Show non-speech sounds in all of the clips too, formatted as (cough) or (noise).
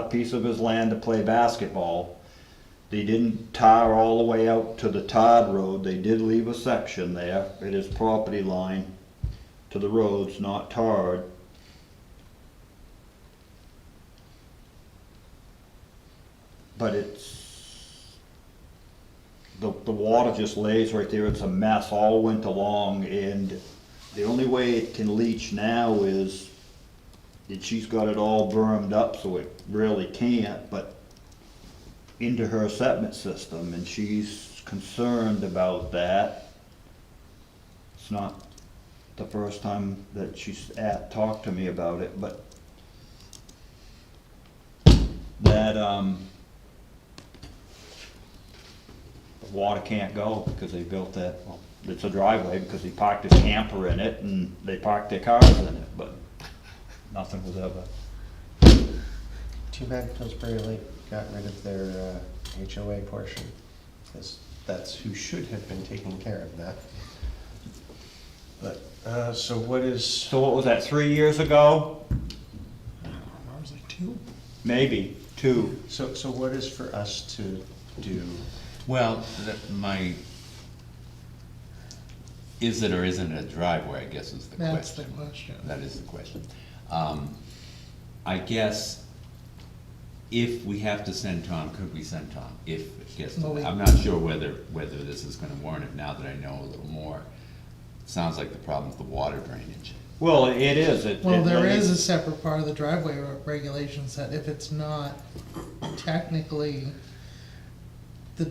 a piece of his land to play basketball. They didn't tar all the way out to the Todd Road, they did leave a section there, it is property line to the roads, not tarred. But it's, the, the water just lays right there, it's a mess all winter long, and the only way it can leach now is and she's got it all bermed up, so it really can't, but into her septic system, and she's concerned about that. It's not the first time that she's at, talked to me about it, but that, um, the water can't go because they built that, well, it's a driveway because he parked his camper in it and they parked their cars in it, but (laughs) nothing was ever. Too bad Pillsbury Lake got rid of their uh, HOA portion, because that's who should have been taking care of that. But, uh, so what is, So what was that, three years ago? I was like two. Maybe, two. so, so what is for us to do? Well, that, my, is it or isn't it a driveway, I guess is the question. That's the question. That is the question. Um, I guess if we have to send Tom, could we send Tom? If it gets to Well, we- that, I'm not sure whether, whether this is gonna warrant it now that I know a little more. Sounds like the problem's the water drainage. Well, it is, it. Well, it- there is a separate part of the driveway re- regulations that if it's not technically, the,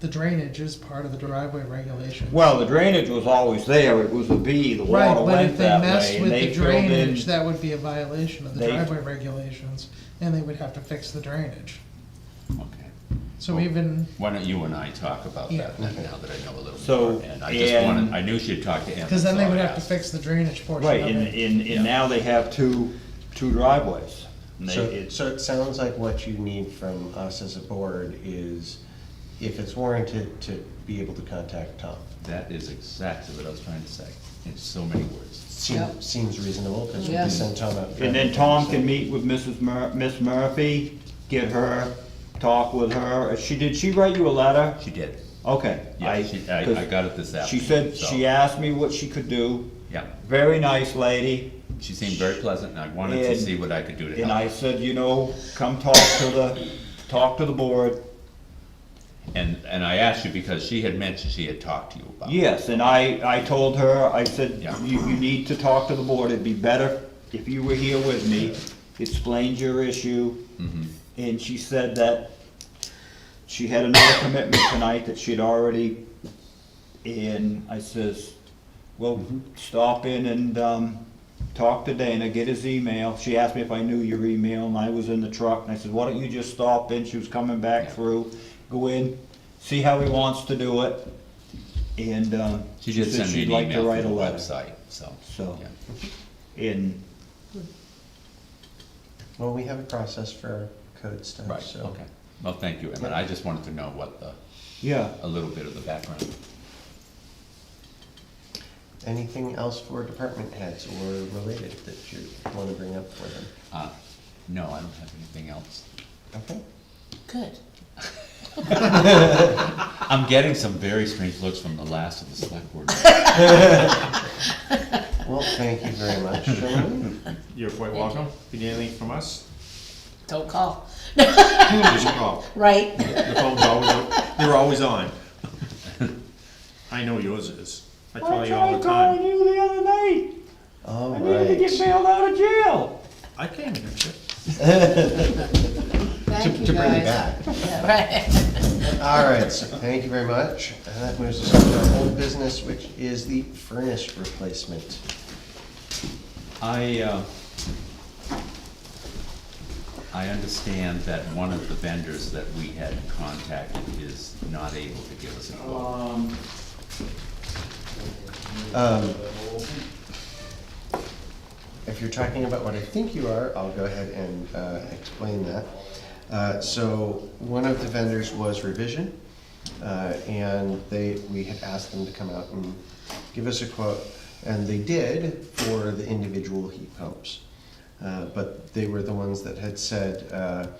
the drainage is part of the driveway regulation. Well, the drainage was always there, it was a B, the Right, water but went if they that way, messed and with they the filled in- drainage, that would be a violation of the They- driveway regulations, and they would have to fix the drainage. Okay. So Well- even, Why don't you and I talk about Yeah. that then, now that I know a little So, more? And I just wanted, and- I knew she'd talked to Emmett. cause then they so I would have to asked. fix the drainage portion Right, of and, it. and, and now they have two, two driveways. And they- So, it's- so it sounds like what you need from us as a board is, if it's warranted, to be able to contact Tom. That is exactly what I was trying to say, in so many words. Seems, seems reasonable, because we can Yeah. send Tom out. for And then Tom everything, can so- meet with Mrs. Mur, Miss Murphy, get her, talk with her. Uh, She, did she write you a letter? She did. Okay. Yeah, she, I, I got it this She afternoon. said, so- she asked me what she could do. Yeah, Very nice lady. she seemed very pleasant, and I wanted to And- see what I could do to And I help. said, you know, come talk to the, talk to the board. And, and I asked you because she had mentioned she had talked to you about. it. Yes, and I, I told her, I said, Yeah. you, you need to talk to the board, it'd be better if you were here with me, explained your issue. Mm-hmm. And she said that she had another commitment tonight that she'd already, and I says, well, Mm-hmm. stop in and, um, talk to Dana, get his email. She asked me if I knew your email, and I was in the truck, and I said, why don't you just stop in, she was coming back Yeah. through, go in, see how he wants to do it, and, um, She did said send me she'd an like to email write from a the letter. Oh, website, so. So- yeah. And, Well, we have a process for our code stuff, Right, so. okay. Well, thank you, Emmett, I just wanted to know what the, yeah, a little bit of the background. Anything else for department heads or related that you want to bring up for them? Uh, no, I don't have anything else. Okay. Good. I'm getting some very strange looks from the last of the select board. Well, thank you very much, gentlemen. You're quite Thank welcome. If you need anything from us, Don't call. just call. Right. The phone's always, o- they're always on. (laughs) I know yours is. I call you all the time. you the other night, All get right. bailed out of jail. I can't answer. Thank you, guys. to bring it back. Yeah, (laughs) Right. All right, so thank you very much. And that moves us on to our old business, which is the furnace replacement. I, uh, I understand that one of the vendors that we had contacted is not able to give us a quote. Um, Um, If you're talking about what I think you are, I'll go ahead and uh, explain that. Uh, So one of the vendors was Revision, uh, and they, we had asked them to come out and give us a quote, and they did for the individual heat pumps. Uh, But they were the ones that had said, uh,